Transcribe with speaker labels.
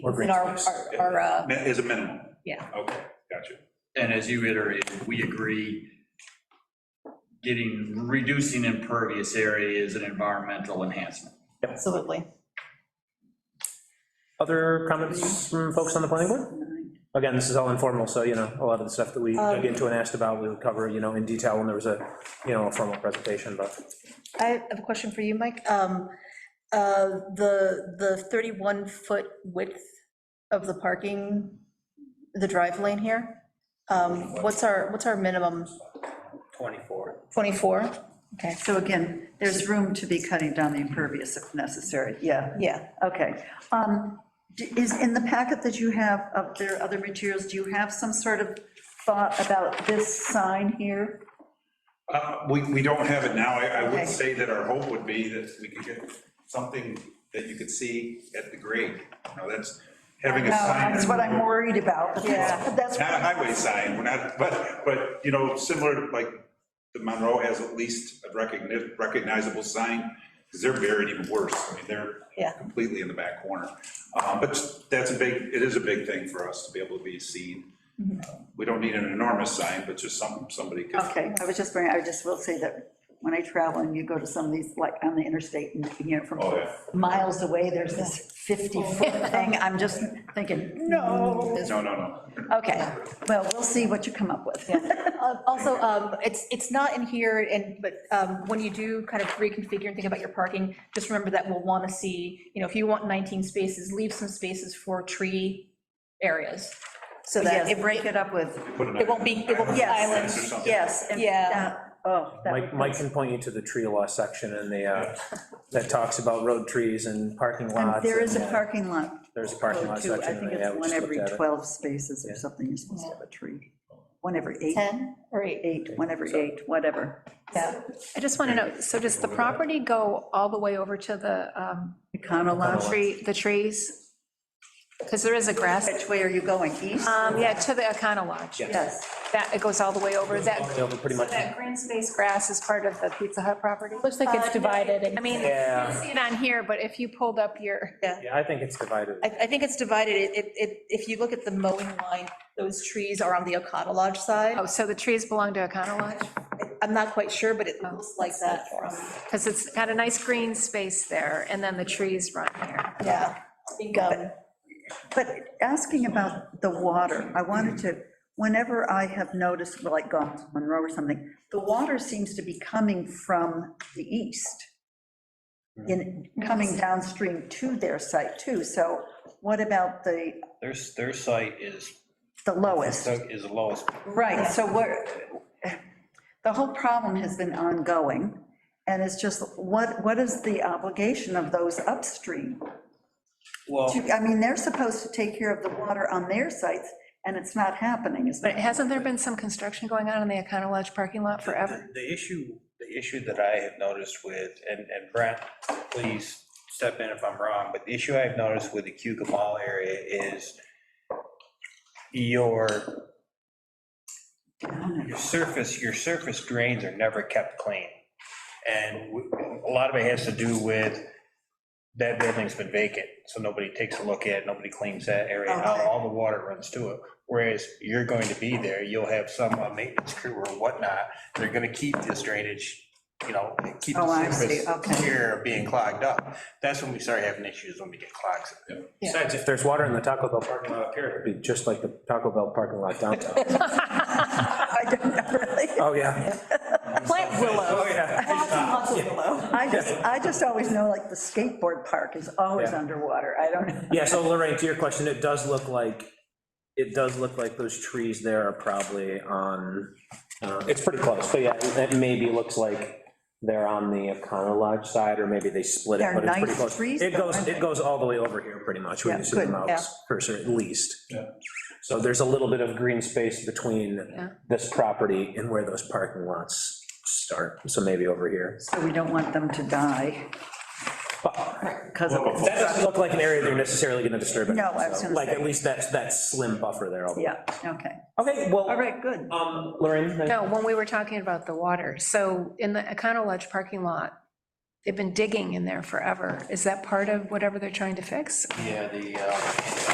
Speaker 1: Or green
Speaker 2: in our,
Speaker 1: space.
Speaker 2: our- our, uh,
Speaker 1: Mi- Is a minimum?
Speaker 2: Yeah.
Speaker 1: Okay, gotcha.
Speaker 3: And as you iterated, we agree getting, reducing impervious area is an environmental enhancement.
Speaker 2: absolutely.
Speaker 4: Other comments from folks on the planning board? Again, this is all informal, so, you know, a lot of the stuff that we
Speaker 5: Um,
Speaker 4: dug into and asked about, we would cover, you know, in detail when there was a, you know, a formal presentation, but.
Speaker 2: I have a question for you, Mike. Um, uh, The, the 31-foot width of the parking, the drive lane here, um, what's our, what's our minimum?
Speaker 4: 24.
Speaker 2: 24? Okay,
Speaker 5: So again, there's room to be cutting down the impervious if necessary, yeah,
Speaker 2: yeah.
Speaker 5: okay. Um, d- Is, in the packet that you have of their other materials, do you have some sort of thought about this sign here?
Speaker 1: Uh, We, we don't have it now. I, I
Speaker 5: Okay.
Speaker 1: would say that our hope would be that we could get something that you could see at the grade. Now, that's having a
Speaker 5: No,
Speaker 1: sign.
Speaker 5: Uh, That's what I'm worried about.
Speaker 2: Yeah.
Speaker 5: That's,
Speaker 1: Not a highway sign, we're not, but, but, you know, similar, like, the Monroe has at least a recogni- recognizable sign, because they're buried even worse, I mean,
Speaker 2: Yeah.
Speaker 1: they're completely in the back corner. Uh, But that's a big, it is a big thing for us to be able to be seen.
Speaker 2: Mm-hmm.
Speaker 1: Uh, We don't need an enormous sign, but just some, somebody could.
Speaker 5: okay, I was just bringing, I just will say that when I travel and you go to some of these, like on the interstate and you can hear it from
Speaker 1: Oh, yeah.
Speaker 5: miles away, there's this 50-foot thing, I'm just thinking, no.
Speaker 1: No, no, no.
Speaker 5: Okay, well, we'll see what you come up with.
Speaker 2: Uh, Also, um, it's, it's not in here, and, but um, when you do kind of reconfigure and think about your parking, just remember that we'll want to see, you know, if you want 19 spaces, leave some spaces for tree areas, so that
Speaker 5: Yes,
Speaker 2: it
Speaker 5: break it up with,
Speaker 1: Put an
Speaker 2: It won't be- it won't be
Speaker 1: island
Speaker 2: islands.
Speaker 1: fence or something.
Speaker 5: yes. and
Speaker 2: Yeah.
Speaker 5: that- Oh, that
Speaker 4: Mike, Mike can point you to the tree law section and the, uh, that talks about road trees and parking
Speaker 5: And
Speaker 4: lots.
Speaker 5: there is a
Speaker 4: and, uh,
Speaker 5: parking lot.
Speaker 4: There's a parking lot
Speaker 5: code, too.
Speaker 4: section,
Speaker 5: I think
Speaker 4: yeah,
Speaker 5: it's
Speaker 4: we
Speaker 5: one
Speaker 4: just
Speaker 5: every
Speaker 4: looked at it.
Speaker 5: 12 spaces or something, you're supposed to have a tree. One every eight,
Speaker 2: 10 or 8.
Speaker 5: eight, one every eight, whatever.
Speaker 2: Yeah.
Speaker 6: I just want to know, so does the property go all the way over to the um,
Speaker 5: Econo lot.
Speaker 6: tree, the trees? Because there is a grass,
Speaker 5: Which way are you going, east?
Speaker 6: um, yeah, to the Econo Lodge.
Speaker 5: Yes,
Speaker 6: That, it goes all the way over, that,
Speaker 4: Over pretty
Speaker 6: so
Speaker 4: much.
Speaker 6: that green space grass is part of the Pizza Hut property? Uh,
Speaker 7: Looks like it's divided.
Speaker 6: I mean, you
Speaker 4: Yeah.
Speaker 6: can see it on here, but if you pulled up your,
Speaker 4: Yeah, I think it's divided.
Speaker 2: I, I think it's divided, It- it, it, if you look at the mowing line, those trees are on the Okata Lodge side.
Speaker 6: oh, so the trees belong to Econo Lodge?
Speaker 2: I'm not quite sure, but it looks like Oh, that from,
Speaker 6: Because it's got a nice green space there, and then the trees run there.
Speaker 2: yeah. I think, um,
Speaker 5: but asking about the water, I wanted to, whenever I have noticed, like gone to Monroe or something, the water seems to be coming from the east. In, coming downstream to their site too, so what about the,
Speaker 8: Their, their site is,
Speaker 5: the lowest?
Speaker 8: is the lowest.
Speaker 5: Right, so we're, the whole problem has been ongoing, and it's just, what, what is the obligation of those upstream?
Speaker 8: Well,
Speaker 5: To- I mean, they're supposed to take care of the water on their sites, and it's not happening, is
Speaker 6: But
Speaker 5: it?
Speaker 6: hasn't there been some construction going on in the Econo Lodge parking lot forever?
Speaker 8: the the issue, the issue that I have noticed with, and, and Brent, please step in if I'm wrong, but the issue I've noticed with the Cuca Mall area is your, your surface, your surface drains are never kept clean. And w- a lot of it has to do with, that building's been vacant, so nobody takes a look at it, nobody cleans that area out,
Speaker 5: Okay.
Speaker 8: all the water runs to it. Whereas you're going to be there, you'll have some uh, maintenance crew or whatnot, they're gonna keep this drainage, you know, keep
Speaker 5: Oh, I
Speaker 8: the
Speaker 5: see, okay.
Speaker 8: surface clear of being clogged up. That's when we start having issues, when we get clogs.
Speaker 4: Besides, if there's water in the Taco Bell parking lot up here, it'd be just like the Taco Bell parking lot downtown.
Speaker 5: I don't know, really.
Speaker 4: Oh, yeah.
Speaker 2: Plant willow.
Speaker 5: I just, I just always know, like, the skateboard park is always
Speaker 4: Yeah.
Speaker 5: underwater, I don't know.
Speaker 4: Yeah, so Lorraine, to your question, it does look like, it does look like those trees there are probably on, uh, it's pretty close, so yeah, it maybe looks like they're on the Econo Lodge side, or maybe they split it,
Speaker 5: They're
Speaker 4: but it's pretty
Speaker 5: nice
Speaker 4: close.
Speaker 5: trees,
Speaker 4: It
Speaker 5: though,
Speaker 4: goes,
Speaker 5: aren't
Speaker 4: it goes all the way over here, pretty much, when
Speaker 5: Yeah,
Speaker 4: you see the
Speaker 5: good,
Speaker 2: yeah.
Speaker 4: mouse cursor, at least.
Speaker 1: Yeah.
Speaker 4: So there's a little bit of green space between
Speaker 6: Yeah.
Speaker 4: this property and where those parking lots start, so maybe over here.
Speaker 5: So we don't want them to die. Because of,
Speaker 4: That doesn't look like an area they're necessarily gonna disturb it.
Speaker 5: No, I was gonna
Speaker 4: Like,
Speaker 5: say.
Speaker 4: at least that's, that slim buffer there. all the way.
Speaker 5: yeah, okay,
Speaker 4: Okay, well.
Speaker 5: all right, good.
Speaker 4: Um, Lorraine? then-
Speaker 6: No, when we were talking about the water, so in the Econo Lodge parking lot, they've been digging in there forever. Is that part of whatever they're trying to fix?
Speaker 8: Yeah, the, uh,